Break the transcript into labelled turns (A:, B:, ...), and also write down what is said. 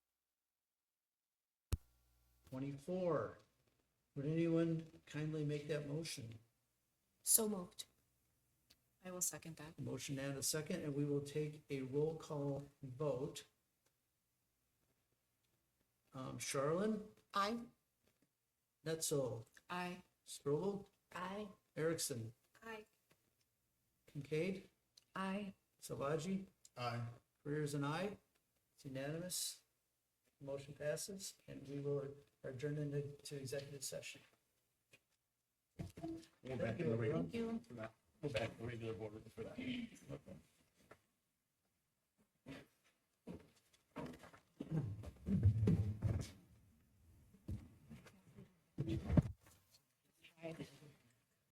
A: twenty-four. Would anyone kindly make that motion?
B: So moved. I will second that.
A: Motion and a second, and we will take a roll call vote. Um, Charlene,
B: I.
A: Netzel,
B: I.
A: Strobel,
B: I.
A: Erickson,
B: I.
A: Kincaid,
B: I.
A: Savaji,
C: Aye.
A: Careers and I. It's unanimous. Motion passes, and we will adjourn into to executive session.
C: We're back in the regular,
A: Thank you.
C: we're back in the regular board for that.